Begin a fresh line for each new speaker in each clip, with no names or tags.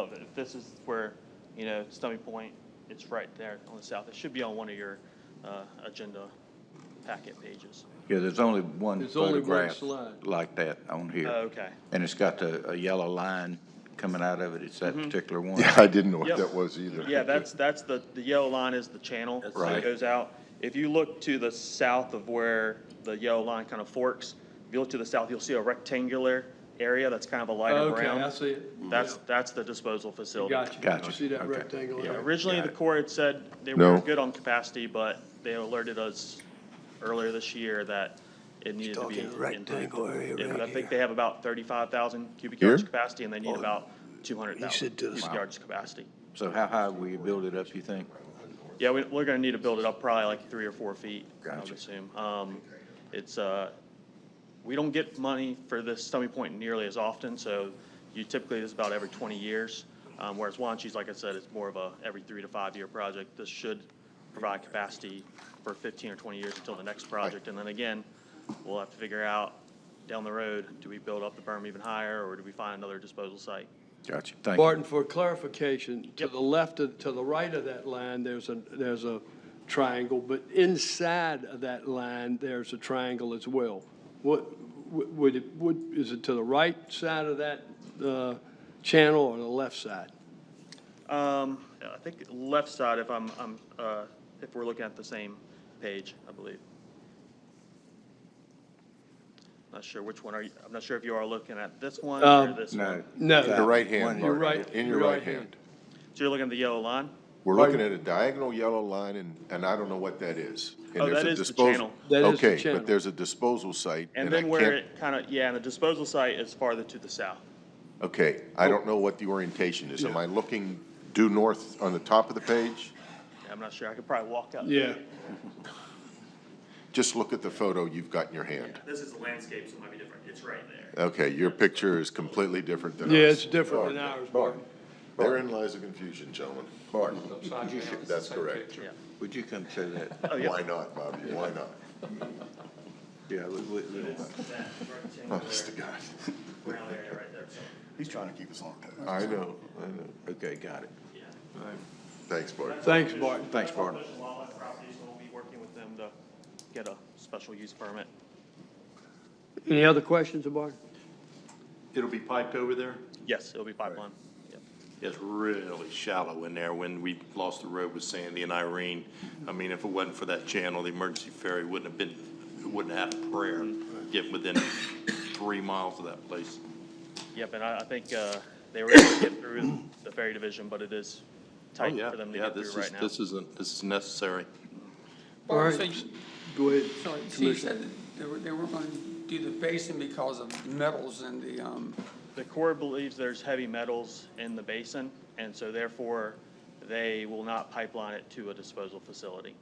of it. If this is where, you know, Stony Point, it's right there on the south. It should be on one of your uh, agenda packet pages.
Yeah, there's only one
There's only one
photograph
slide. Oh,
like that on here.
Uh, Okay.
And it's got the, a yellow line coming out of it. It's
Mm-hmm.
that particular one.
Yeah, I didn't know what
Yep.
that was either.
Yeah, that's, that's the, the yellow line is the channel that
Right.
goes out. If you look to the south of where the yellow line kind of forks, if you look to the south, you'll see a rectangular area that's kind of a lighter
Oh, Okay, I
brown.
see it.
That's,
Yeah.
that's the disposal facility.
Got you.
Gotcha.
See that
Okay.
rectangle
Yeah.
there?
Originally,
Got
the
it.
Corps had said they were
No.
good on capacity, but they alerted us earlier this year that it needed to be.
talking rectangle
improved.
area
And
right
I think
here. Oh,
they have about thirty-five thousand cubic
Here?
yards capacity, and they need about two hundred thousand
said to the
cubic
south.
yards capacity.
So how high will you build it up, you think?
Yeah, we, we're gonna need to build it up probably like three or four feet, I would
Gotcha.
assume. Um, it's, uh, we don't get money for this Stony Point nearly as often, so you typically, this is about every twenty years. Um, whereas Wanches, like I said, it's more of a every three to five-year project. This should provide capacity for fifteen or twenty years until the next project. And then again, we'll have to figure out down the road, do we build up the berm even higher, or do we find another disposal site?
Gotcha, thank you.
Barton, for clarification, to
Yep.
the left, of to the right of that line, there's a, there's a triangle, but inside of that line, there's a triangle as well. What, wh- would it, would, is it to the right side of that uh, channel or the left side?
Um, I think left side, if I'm, I'm, uh, if we're looking at the same page, I believe. Not sure which one are you, I'm not sure if you are looking at this one or
Um,
this
No.
one.
No.
The right
One-
hand,
Your
Martin,
right-
in your right hand.
So you're looking at the yellow line?
We're looking at a diagonal yellow line, and, and I don't know what that is. And
Oh,
there's
that
a
is the
disposal-
channel.
That is the
Okay,
channel.
but there's a disposal site,
And
and I
then where
can't,
it kind of, yeah, and the disposal site is farther to the south.
okay, I don't
Oh.
know what the orientation is. Am I looking due north on the top of the page?
I'm not sure, I could probably walk up.
Yeah,
Just look at the photo you've got in your hand.
This is the landscape, so it might be different, it's right there.
Okay, your picture is completely different than ours.
yeah, it's different than ours, Barton.
Therein lies the confusion, gentlemen.
Barton,
You should- That's correct.
would you come show that?
Oh, yeah.
Why not, Bobby? Why not?
Yeah, we, we, we don't mind.
That rectangular
Honest to God.
brown area right there, so,
He's trying to keep us on task. I know, I know.
okay, got it.
yeah.
Thanks, Bart.
Thanks, Barton.
Thanks, Barton.
Fish and wildlife properties, so we'll be working with them to get a special use permit.
Any other questions, Barton?
It'll be piped over there?
Yes, it'll be pipeline. Yep.
It's really shallow in there. When we lost the road with Sandy and Irene, I mean, if it wasn't for that channel, the emergency ferry wouldn't have been, it wouldn't have had a prayer get within three miles of that place.
Yep, and I, I think, uh, they were able to get through the ferry division, but it is tight
Oh, Yeah,
for them to
yeah,
get
this
through
is-
right now.
This isn't, this is necessary.
All
Well,
right,
so you-
go ahead.
so you
Commissioner.
said that they were, they were going to do the basin because of metals and the, um,
The Corps believes there's heavy metals in the basin, and so therefore, they will not pipeline it to a disposal facility.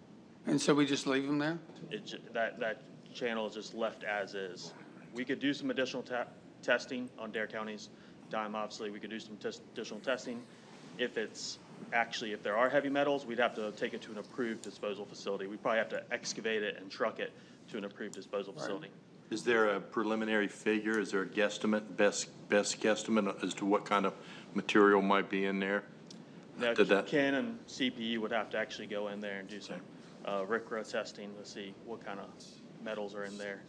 and so we just leave them there?
It, ju- that, that channel is just left as is. We could do some additional ta- testing on Dare County's dime, obviously, we could do some tes- additional testing. If it's, actually, if there are heavy metals, we'd have to take it to an approved disposal facility. We'd probably have to excavate it and truck it to an approved disposal facility.
Is there a preliminary figure? Is there a guesstimate, best, best guesstimate as to what kind of material might be in there?
Now,
Did that-
Ken and CPE would have to actually go in there and do some, uh, RCRA testing to see what kind of metals are in there,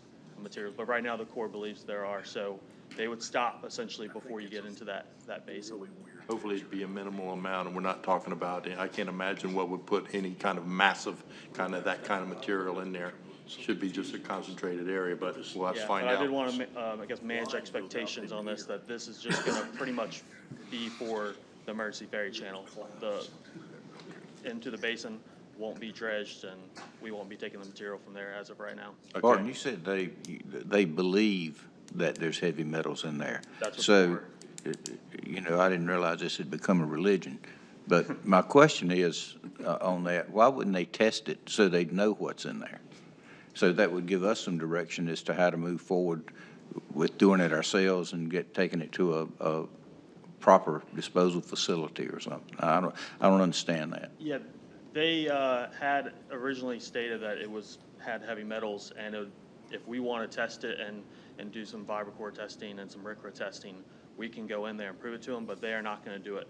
materials. But right now, the Corps believes there are, so they would stop essentially before you get into that, that basin.
Hopefully it'd be a minimal amount, and we're not talking about, I can't imagine what would put any kind of massive, kind of that kind of material in there. Should be just a concentrated area, but we'll have to
Yeah,
find
but I did
out.
want to, um, I guess, manage expectations on this, that this is just going to pretty much be for the emergency ferry channel. The, into the basin won't be dredged, and we won't be taking the material from there as of right now.
Okay.
Barton, you said they, they believe that there's heavy metals in there.
That's what they
So,
were.
you know, I didn't realize this had become a religion. But my question is uh, on that, why wouldn't they test it so they'd know what's in there? So that would give us some direction as to how to move forward with doing it ourselves and get, taking it to a, a proper disposal facility or something. I don't, I don't understand that.
Yeah, they uh, had originally stated that it was, had heavy metals, and it- if we want to test it and, and do some vibrocore testing and some RCRA testing, we can go in there and prove it to them, but they are not going to do it.